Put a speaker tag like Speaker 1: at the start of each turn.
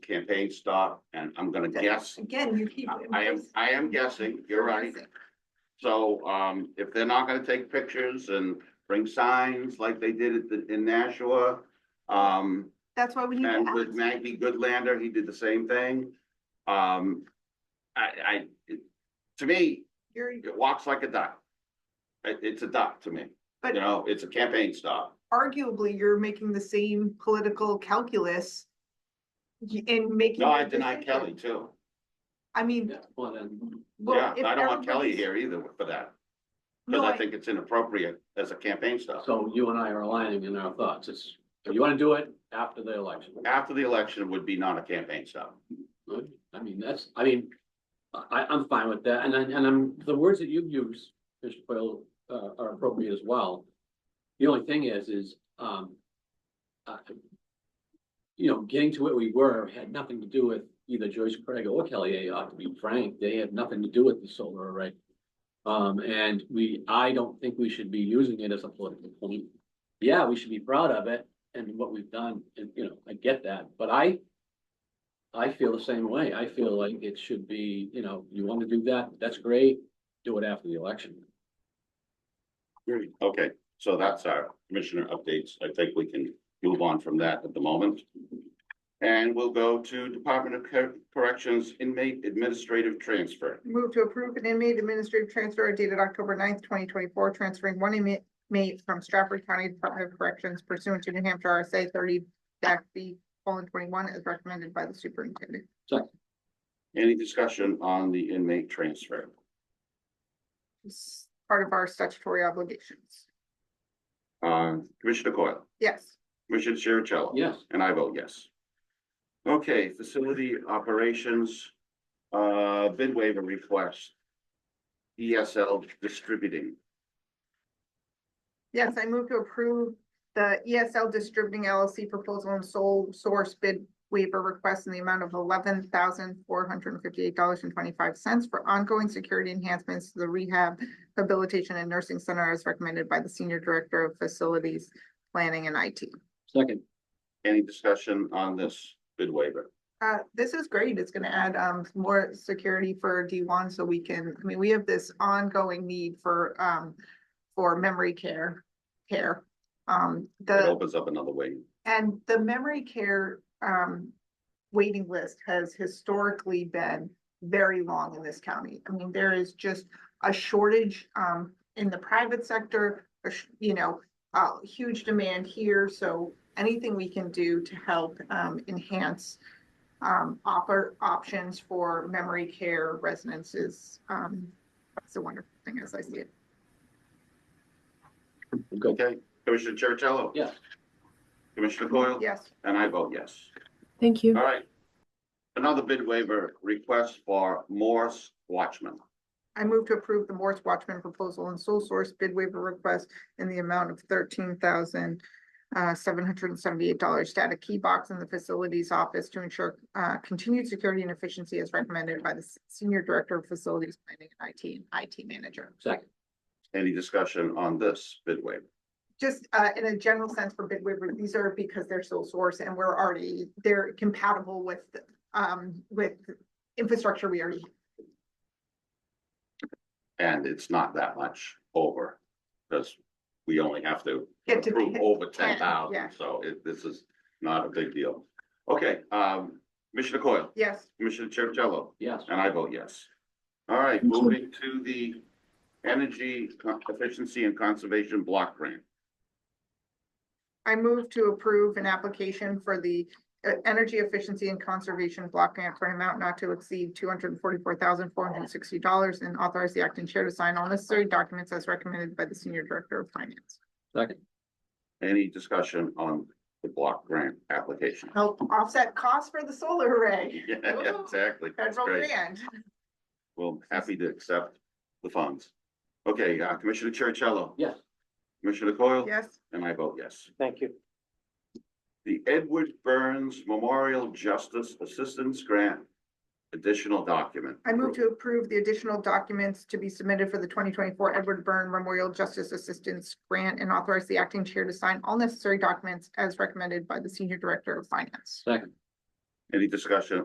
Speaker 1: campaign stop, and I'm gonna guess,
Speaker 2: Again, you keep.
Speaker 1: I am, I am guessing, you're right. So, um, if they're not gonna take pictures and bring signs like they did at the, in Nashua, um,
Speaker 2: That's why we need
Speaker 1: and with
Speaker 2: to ask.
Speaker 1: Maggie Goodlander, he did the same thing. Um, I, I, it- to me,
Speaker 2: You're,
Speaker 1: it walks like a duck. It, it's a duck to me, you
Speaker 2: but
Speaker 1: know, it's a campaign stop.
Speaker 2: arguably, you're making the same political calculus y- in making.
Speaker 1: No, I
Speaker 2: your
Speaker 1: deny
Speaker 2: decision.
Speaker 1: Kelly too.
Speaker 2: I mean,
Speaker 3: Yeah, well, then.
Speaker 2: well.
Speaker 1: Yeah,
Speaker 2: if
Speaker 1: I don't want Kelly
Speaker 2: everybody's-
Speaker 1: here either for that,
Speaker 2: No,
Speaker 1: because I
Speaker 2: I,
Speaker 1: think it's inappropriate as a campaign stop.
Speaker 3: So you and I are aligning in our thoughts. It's, if you wanna do it after the election.
Speaker 1: After the election would be not a campaign stop.
Speaker 3: I mean, that's, I mean, I, I'm fine with that. And I, and I'm, the words that you've used, Mr. Quayle, uh, are appropriate as well. The only thing is, is, um, uh, you know, getting to where we were had nothing to do with either Joyce Craig or Kelly A. Ought to be frank, they had nothing to do with the solar array. Um, and we, I don't think we should be using it as a political point. Yeah, we should be proud of it and what we've done, and, you know, I get that, but I I feel the same way. I feel like it should be, you know, you want to do that, that's great, do it after the election.
Speaker 1: Okay, so that's our commissioner updates. I think we can move on from that at the moment. And we'll go to Department of Cor- Corrections inmate administrative transfer.
Speaker 2: move to approve an inmate administrative transfer dated October 9th, twenty twenty-four, transferring one inmate mate from Stratford County Department of Corrections pursuant to New Hampshire RSA thirty dash B colon twenty-one as recommended by the superintendent.
Speaker 1: Any discussion on the inmate transfer?
Speaker 2: It's part of our statutory obligations.
Speaker 1: Uh, Commissioner Coyle,
Speaker 2: Yes.
Speaker 1: Commissioner Chercello.
Speaker 3: Yes,
Speaker 1: And I vote yes. Okay, facility operations, uh, bid waiver request. ESL distributing.
Speaker 2: Yes, I move to approve the ESL Distributing LLC proposal and sole source bid waiver request in the amount of eleven thousand four hundred and fifty-eight dollars and twenty-five cents for ongoing security enhancements to the rehab, habilitation and nursing center as recommended by the Senior Director of Facilities Planning and IT.
Speaker 3: second,
Speaker 1: Any discussion on this bid waiver?
Speaker 2: Uh, this is great. It's gonna add, um, more security for D one, so we can, I mean, we have this ongoing need for, um, for memory care, care. Um, the.
Speaker 1: It opens up another way.
Speaker 2: And the memory care um waiting list has historically been very long in this county. I mean, there is just a shortage um in the private sector, a sh- you know, uh huge demand here, so anything we can do to help um enhance um oppor- options for memory care residents is um that's a wonderful thing as I see it.
Speaker 3: good.
Speaker 1: Okay, Commissioner Chercello?
Speaker 3: Yes.
Speaker 1: Commissioner Coyle?
Speaker 2: Yes.
Speaker 1: And I vote yes.
Speaker 4: Thank
Speaker 1: All
Speaker 4: you.
Speaker 1: right. Another bid waiver request for Morse Watchman.
Speaker 2: I move to approve the Morse Watchman proposal and sole source bid waiver request in the amount of thirteen thousand uh, seven hundred and seventy-eight dollars to add a key box in the facilities office to ensure uh, continued security and efficiency as recommended by the S- Senior Director of Facilities Planning and IT and IT Manager.
Speaker 3: Second,
Speaker 1: Any discussion on this bid waiver?
Speaker 2: Just uh, in a general sense for bid waiver, these are because they're sole source and we're already, they're compatible with um, with infrastructure we already.
Speaker 1: And it's not that much over, because we only have to
Speaker 2: Get to
Speaker 1: approve
Speaker 2: pick
Speaker 1: over ten
Speaker 2: ten, yeah.
Speaker 1: thousand, so it, this is not a big deal. Okay, um, Commissioner Coyle,
Speaker 2: Yes,
Speaker 1: Commissioner Chercello?
Speaker 3: yes,
Speaker 1: And I vote yes. All right,
Speaker 4: Thank you.
Speaker 1: moving to the Energy Con- Efficiency and Conservation Block Grant.
Speaker 2: I move to approve an application for the uh, Energy Efficiency and Conservation Block Grant for an amount not to exceed two hundred and forty-four thousand, four hundred and sixty dollars and authorize the acting chair to sign all necessary documents as recommended by the Senior Director of Finance.
Speaker 3: second,
Speaker 1: Any discussion on the block grant application?
Speaker 2: Help offset costs for the solar array,
Speaker 1: Yeah, exactly. That's
Speaker 2: federal
Speaker 1: great.
Speaker 2: grant.
Speaker 1: Well, happy to accept the funds. Okay, uh, Commissioner Chercello,
Speaker 3: yes,
Speaker 1: Commissioner Coyle?
Speaker 2: Yes,
Speaker 1: And I vote yes.
Speaker 5: Thank you.
Speaker 1: The Edward Burns Memorial Justice Assistance Grant, additional document.
Speaker 2: I move to approve the additional documents to be submitted for the twenty twenty-four Edward Byrne Memorial Justice Assistance Grant and authorize the acting chair to sign all necessary documents as recommended by the Senior Director of Finance.
Speaker 3: second,
Speaker 1: Any discussion